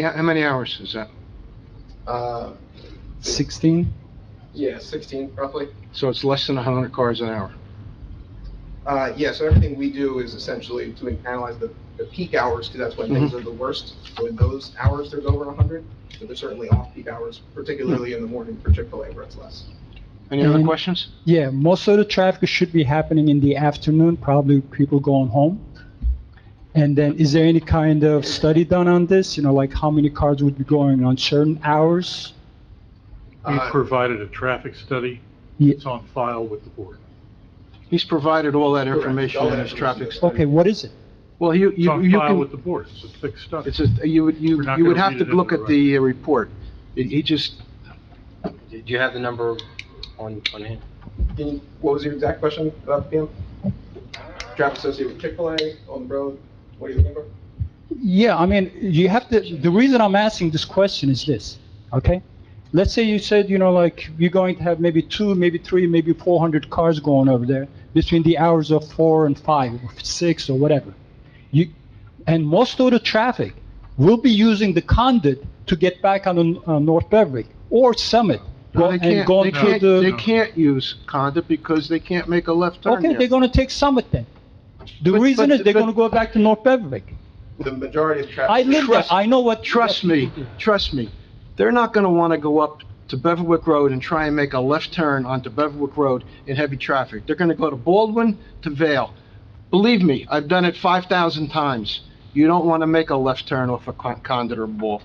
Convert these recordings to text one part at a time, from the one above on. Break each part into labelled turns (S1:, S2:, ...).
S1: Yeah, How many hours is that?
S2: Uh,
S3: 16?
S2: yeah, 16 roughly.
S1: So it's less than 100 cars an hour.
S2: Uh, yeah, so everything we do is essentially to analyze the, the peak hours, because that's when things are the worst. When those hours, there's over 100, but there's certainly off-peak hours, particularly in the morning for Chick-fil-A where it's less.
S1: Any other
S3: And-
S1: questions?
S3: Yeah, most of the traffic should be happening in the afternoon, probably people going home. And then is there any kind of study done on this? You know, like how many cars would be going on certain hours?
S4: We
S2: Uh,
S4: provided a traffic study.
S3: Ye-
S4: It's on file with the board.
S1: He's provided all that
S2: Correct.
S1: information
S2: All
S1: in
S2: that
S1: his traffic
S2: information.
S1: study.
S3: Okay, what is it?
S1: Well, you,
S4: It's
S1: you,
S4: on
S1: you
S4: file with
S1: can,
S4: the board. It's a thick study.
S1: it's a, you would, you,
S4: We're not
S1: you would
S4: gonna
S1: have
S4: read
S1: to
S4: it into
S1: look
S4: the
S1: at the uh, report. He- He just,
S5: Do you have the number on, on hand?
S2: can you- What was your exact question about the PM? Traffic associated with Chick-fil-A on the road, what are you looking for?
S3: Yeah, I mean, you have to, the reason I'm asking this question is this, okay? Let's say you said, you know, like, you're going to have maybe two, maybe three, maybe 400 cars going over there between the hours of four and five, or six, or whatever. You, and most of the traffic will be using the conduit to get back on, the- on North Beverly or Summit,
S1: no,
S3: go-
S1: they
S3: and
S1: can't,
S3: going
S1: they
S3: through
S1: can't, they
S3: the...
S1: can't use Conda because they can't make a left turn
S3: Okay, they're
S1: there.
S3: gonna take Summit then. The
S1: But-
S3: reason
S1: but-
S3: is they're
S1: but-
S3: gonna go back to North Beverly.
S2: The majority of traffic.
S3: I live there,
S1: Trust-
S3: I know what...
S1: Trust me, trust me, they're not gonna wanna go up to Beverwick Road and try and make a left turn onto Beverwick Road in heavy traffic. They're gonna go to Baldwin to Vale. Believe me, I've done it five thousand times. You don't wanna make a left turn off a Con- Condit or Ball.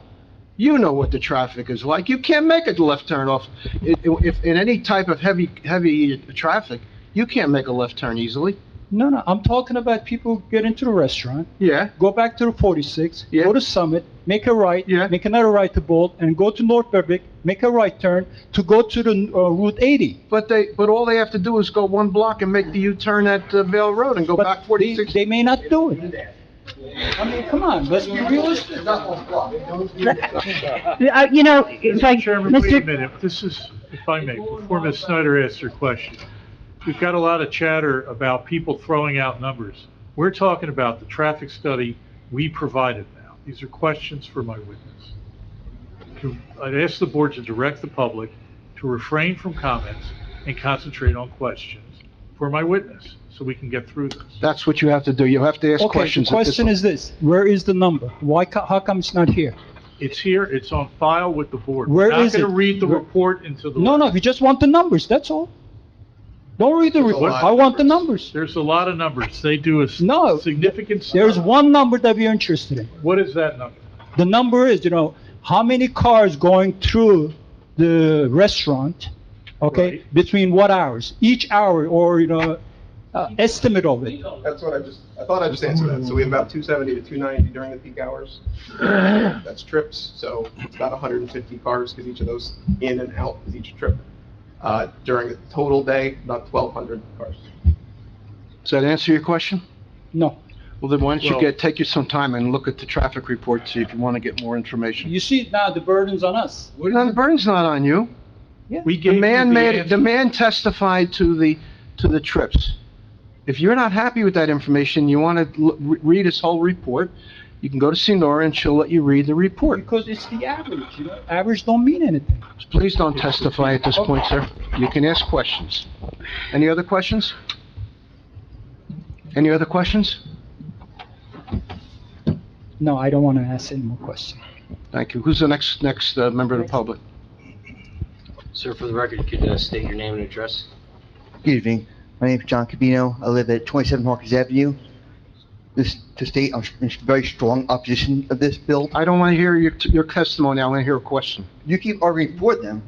S1: You know what the traffic is like. You can't make a left turn off, i- i- if, in any type of heavy, heavy traffic, you can't make a left turn easily.
S3: No, no, I'm talking about people get into the restaurant,
S1: Yeah,
S3: go back to the 46,
S1: Yeah.
S3: go to Summit, make a right,
S1: Yeah.
S3: make another right to Bolt, and go to North Berwick, make a right turn to go to the uh, Route 80.
S1: but they, but all they have to do is go one block and make the U-turn at uh, Vale Road and go
S3: But
S1: back
S3: they-
S1: forty-six.
S3: They may not do it. I mean, come on, let's be realistic.
S6: Yeah, uh, You know, if I,
S4: Mr. Chairman, wait a
S6: Mr.,
S4: minute, this is, if I may, before Ms. Snyder asks her question, we've got a lot of chatter about people throwing out numbers. We're talking about the traffic study we provided now. These are questions for my witness. To- I'd ask the board to direct the public to refrain from comments and concentrate on questions for my witness, so we can get through this.
S1: That's what you have to do. You have to ask
S3: Okay, the
S1: questions. at this
S3: question
S1: one.
S3: is this, where is the number? Why, ca- how come it's not here?
S4: It's here, it's on file with the board.
S3: Where
S4: We're
S3: is it?
S4: Not gonna read the
S3: Where-
S4: report until the.
S3: No, no, we just want the numbers, that's all. Don't read the
S2: There's a
S3: report,
S2: lot
S3: I
S2: of
S3: want the
S2: numbers.
S3: numbers.
S4: There's a lot of numbers. They do a s-
S3: No,
S4: significant.
S3: There's one number that we're interested in.
S4: What is that number?
S3: The number is, you know, how many cars going through the restaurant, okay?
S4: Right.
S3: Between what hours? Each hour or, you know, uh, estimate of it.
S2: That's what I just, I thought I just answered that. So we have about 270 to 290 during the peak hours. That's trips, so it's about 150 cars because each of those in and out is each trip. Uh, During a total day, about 1,200 cars.
S1: Does that answer your question?
S3: No.
S1: Well, then why don't you
S4: Well-
S1: get, take you some time and look at the traffic report, see if you want to get more information.
S3: You see now the burden's on us.
S1: Now, the burden's not on you.
S4: We
S1: The
S4: gave you
S1: man made, the
S4: answer.
S1: man testified to the, to the trips. If you're not happy with that information, you want to read his whole report, you can go to Sinora and she'll let you read the report.
S3: Because it's the average, you know, average don't mean anything.
S1: Please don't testify at this point, sir. You can ask questions. Any other questions? Any other questions?
S3: No, I don't want to ask any more questions.
S1: Thank you. Who's the next, next uh, member of the public?
S5: Sir, for the record, could you uh, state your name and address?
S7: Good evening. My name is John Cabino. I live at 27 Hawkins Avenue. This, to state, I'm in very strong opposition of this bill.
S1: I don't want to hear your, your testimony, I want to hear a question.
S7: You keep arguing for them,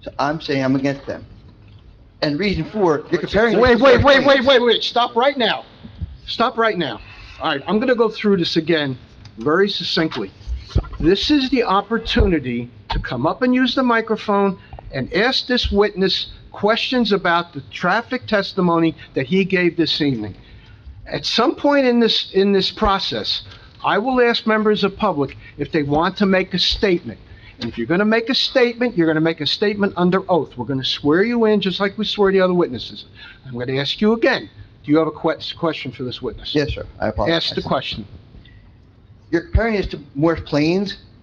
S7: so I'm saying I'm against them. And reason for, you're comparing.
S1: Wait, wait, wait, wait, wait, wait, stop right now. Stop right now. All right, I'm going to go through this again very succinctly. This is the opportunity to come up and use the microphone and ask this witness questions about the traffic testimony that he gave this evening. At some point in this, in this process, I will ask members of public if they want to make a statement. And if you're going to make a statement, you're going to make a statement under oath. We're going to swear you in, just like we swear the other witnesses. I'm going to ask you again, do you have a que- question for this witness?
S7: Yes, sir, I apologize.
S1: Ask the question.
S7: You're comparing this to Morris Plains,